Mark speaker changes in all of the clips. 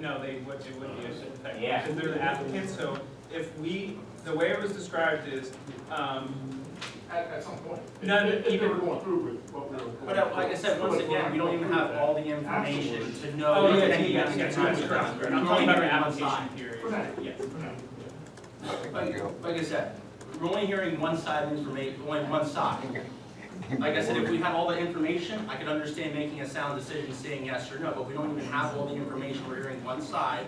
Speaker 1: No, they would, it would be a shit pack,
Speaker 2: Yeah.
Speaker 1: because they're the applicants, so if we, the way it was described is, um,
Speaker 3: At, at some point.
Speaker 1: No,
Speaker 3: If- If they
Speaker 1: even-
Speaker 3: were going through with what we were.
Speaker 2: But uh, like I said, once again, we don't even have all the information to know.
Speaker 1: oh, yeah,
Speaker 2: if
Speaker 1: yeah,
Speaker 2: any
Speaker 1: yeah,
Speaker 2: of
Speaker 1: yeah, correct,
Speaker 2: these times are
Speaker 1: correct,
Speaker 2: done.
Speaker 1: correct. I'm talking about our
Speaker 2: We're only hearing one
Speaker 1: application
Speaker 2: side.
Speaker 1: period,
Speaker 3: Correct.
Speaker 1: yes.
Speaker 2: Like, like I said, we're only hearing one side of information, only one side. Like I said, if we had all the information, I could understand making a sound decision saying yes or no, but we don't even have all the information, we're hearing one side.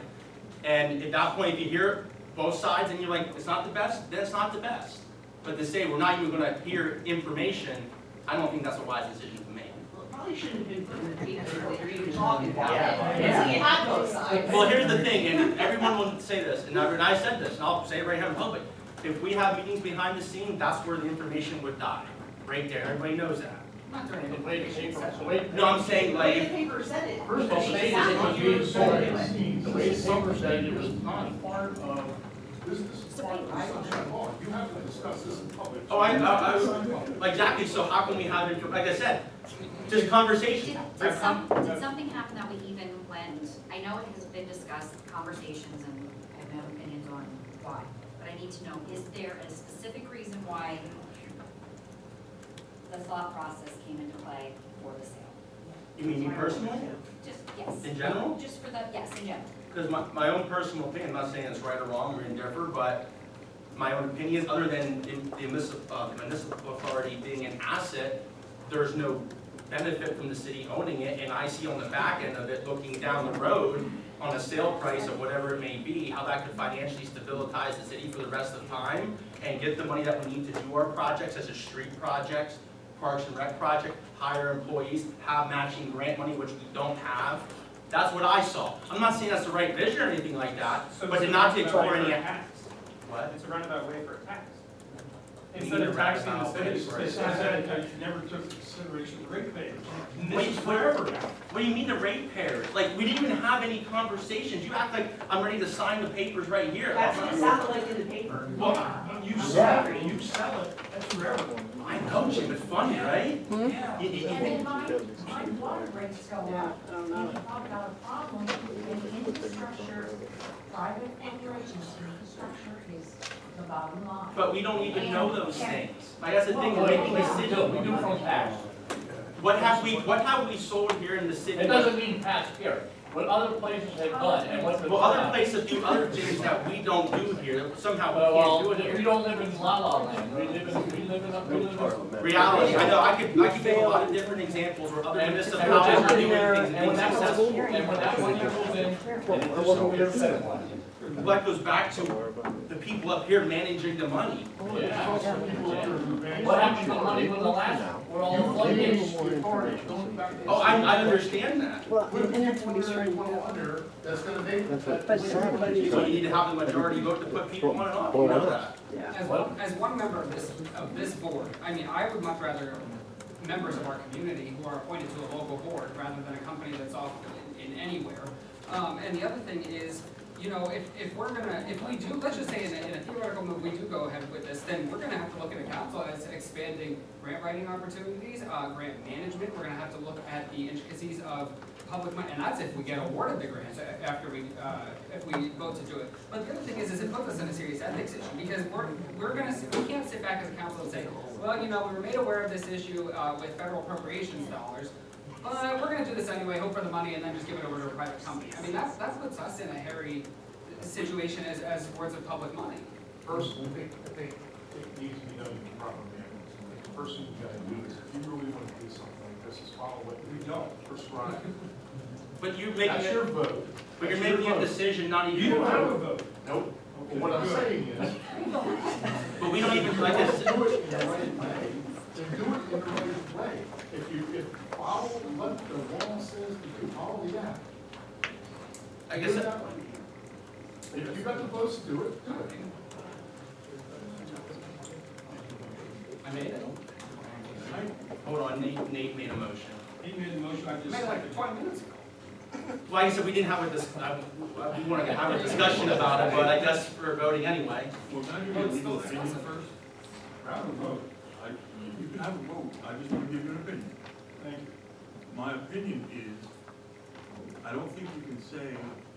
Speaker 2: And at that point, if you hear both sides and you're like, it's not the best, then it's not the best. But to say we're not even gonna hear information, I don't think that's a wise decision to make.
Speaker 4: Well, it probably shouldn't have been put in the paper that you're even talking about it,
Speaker 5: Yeah.
Speaker 4: so you had both sides.
Speaker 2: Well, here's the thing, and everyone will say this, and I, and I said this, and I'll say it right here in public. If we have meetings behind the scene, that's where the information would die, right there, everybody knows that.
Speaker 4: Not during
Speaker 3: The
Speaker 4: the
Speaker 3: way the paper, the way.
Speaker 2: No, I'm saying
Speaker 4: The way the
Speaker 2: like,
Speaker 4: paper said it.
Speaker 3: First of all,
Speaker 4: Exactly.
Speaker 3: they, it was being sold, the way the paper said it was
Speaker 4: It's
Speaker 3: not part of, this is part of the sunshine law, you have to discuss this in public.
Speaker 2: Oh, I- I- I- like, exactly, so how can we have it, like I said, just conversation.
Speaker 5: Did, did some, did something happen that we even went, I know it has been discussed, conversations, and I have no opinions on why, but I need to know, is there a specific reason why the thought process came into play for the sale?
Speaker 2: You mean me personally,
Speaker 5: Just, yes,
Speaker 2: in general?
Speaker 5: just for the, yes, in general.
Speaker 2: Because my, my own personal opinion, I'm not saying it's right or wrong or indifferent, but my own opinion is, other than the the municipal, uh, municipal authority being an asset, there's no benefit from the city owning it, and I see on the back end of it, looking down the road on a sale price of whatever it may be, how that could financially stabilize the city for the rest of time and get the money that we need to do our projects, such as street projects, parks and rec project, hire employees, have matching grant money, which we don't have. That's what I saw. I'm not saying that's the right vision or anything like that,
Speaker 1: So
Speaker 2: but
Speaker 1: it's
Speaker 2: to
Speaker 1: a
Speaker 2: not to
Speaker 1: roundabout
Speaker 2: explore
Speaker 1: way
Speaker 2: any,
Speaker 1: for tax.
Speaker 2: what?
Speaker 1: It's a roundabout way for tax.
Speaker 2: We
Speaker 1: Instead
Speaker 2: need
Speaker 1: of
Speaker 2: a
Speaker 1: taxing the
Speaker 2: roundabout way
Speaker 1: city,
Speaker 2: for
Speaker 1: they
Speaker 2: it.
Speaker 1: said that you never took into consideration ratepayers.
Speaker 2: Wait,
Speaker 1: This is
Speaker 2: where-
Speaker 1: forever now.
Speaker 2: What do you mean the rate pair? Like, we didn't even have any conversations. You act like I'm ready to sign the papers right here.
Speaker 4: That's what it sounded like in the paper.
Speaker 3: Well, you sell it, you sell it, that's your everyone.
Speaker 2: I know, Jim, it's funny, right?
Speaker 3: Yeah.
Speaker 2: You- you-
Speaker 6: And then my, my water rates go up. And you talk about a problem in infrastructure, private corporations, infrastructure is the bottom line.
Speaker 2: But we don't even know those things. Like, that's the thing, we're making a decision.
Speaker 3: We do from past.
Speaker 2: What have we, what have we sold here in the city?
Speaker 3: It doesn't mean past here, what other places have done and what.
Speaker 2: Well, other places do other things that we don't do here, that somehow
Speaker 3: Well,
Speaker 2: we can't do it
Speaker 3: we
Speaker 2: here.
Speaker 3: don't live in La La Land, we live in, we live in, a- we live in. a-
Speaker 2: Reality, I know, I could, I could give a lot of different examples where other
Speaker 3: And it's
Speaker 2: municipalities are doing things
Speaker 3: And when
Speaker 2: and
Speaker 3: that was,
Speaker 2: being successful.
Speaker 3: and when that one comes in, it was over
Speaker 2: Well, that goes back to the people up here managing the money.
Speaker 3: What happened to the money when the last, where all the floodgates reported, going back to.
Speaker 2: Oh, I, I understand that.
Speaker 7: Well,
Speaker 3: What
Speaker 7: and
Speaker 3: if
Speaker 7: and
Speaker 3: you
Speaker 7: that's what
Speaker 3: wonder
Speaker 7: he's
Speaker 3: if
Speaker 7: trying
Speaker 3: one
Speaker 7: to,
Speaker 3: wonder, that's gonna be.
Speaker 8: That's what-
Speaker 7: but everybody,
Speaker 2: So you need to have the majority vote to put people on and off, you know that.
Speaker 7: yeah.
Speaker 9: As, one- as one member of this, of this board, I mean, I would much rather members of our community who are appointed to a local board rather than a company that's off in in anywhere. Um, and the other thing is, you know, if, if we're gonna, if we do, let's just say in a, in a theoretical move, we do go ahead with this, then we're gonna have to look at the council as expanding grant writing opportunities, uh, grant management, we're gonna have to look at the intricacies of public money, and that's if we get awarded the grants a- after we, uh, if we vote to do it. But the other thing is, is it puts us in a serious ethics issue, because we're, we're gonna, sit- we can't sit back as a council and say, well, you know, we were made aware of this issue, uh, with federal appropriations dollars, but Uh, we're gonna do this anyway, hope for the money, and then just give it over to a private company. I mean, that's, that puts us in a hairy situation as, as boards of public money.
Speaker 3: First, I think, I think it needs to be done in the proper manner. The First thing you gotta do is, if you really wanna do something like this, is follow what we don't prescribe.
Speaker 2: But you're making,
Speaker 3: That's your
Speaker 2: a-
Speaker 3: vote.
Speaker 2: but you're
Speaker 3: That's your
Speaker 2: making a
Speaker 3: vote.
Speaker 2: decision not even.
Speaker 1: You don't have a vote.
Speaker 3: Nope. But What I'm saying is,
Speaker 2: But we don't even, like I
Speaker 3: do
Speaker 2: said,
Speaker 3: it in the right way, to do it in the right way. If you, if follow what the law says, to do follow that.
Speaker 2: I
Speaker 3: Do it
Speaker 2: guess,
Speaker 3: that way. If you got the votes to do it, do it.
Speaker 2: I made it. Hold on, Nate, Nate made a motion.
Speaker 1: He made the motion, I just.
Speaker 9: Made like twenty minutes ago.
Speaker 2: Like I said, we didn't have a dis, I, I- we wanted to have a discussion about it, but I guess we're voting anyway.
Speaker 3: Well, now you're
Speaker 9: Well, it's
Speaker 3: voting
Speaker 9: still
Speaker 3: for
Speaker 9: discussed at first.
Speaker 3: Have a vote. I, you can have a vote, I just want to give you an opinion.
Speaker 1: Thank you.
Speaker 3: My opinion is, I don't think you can say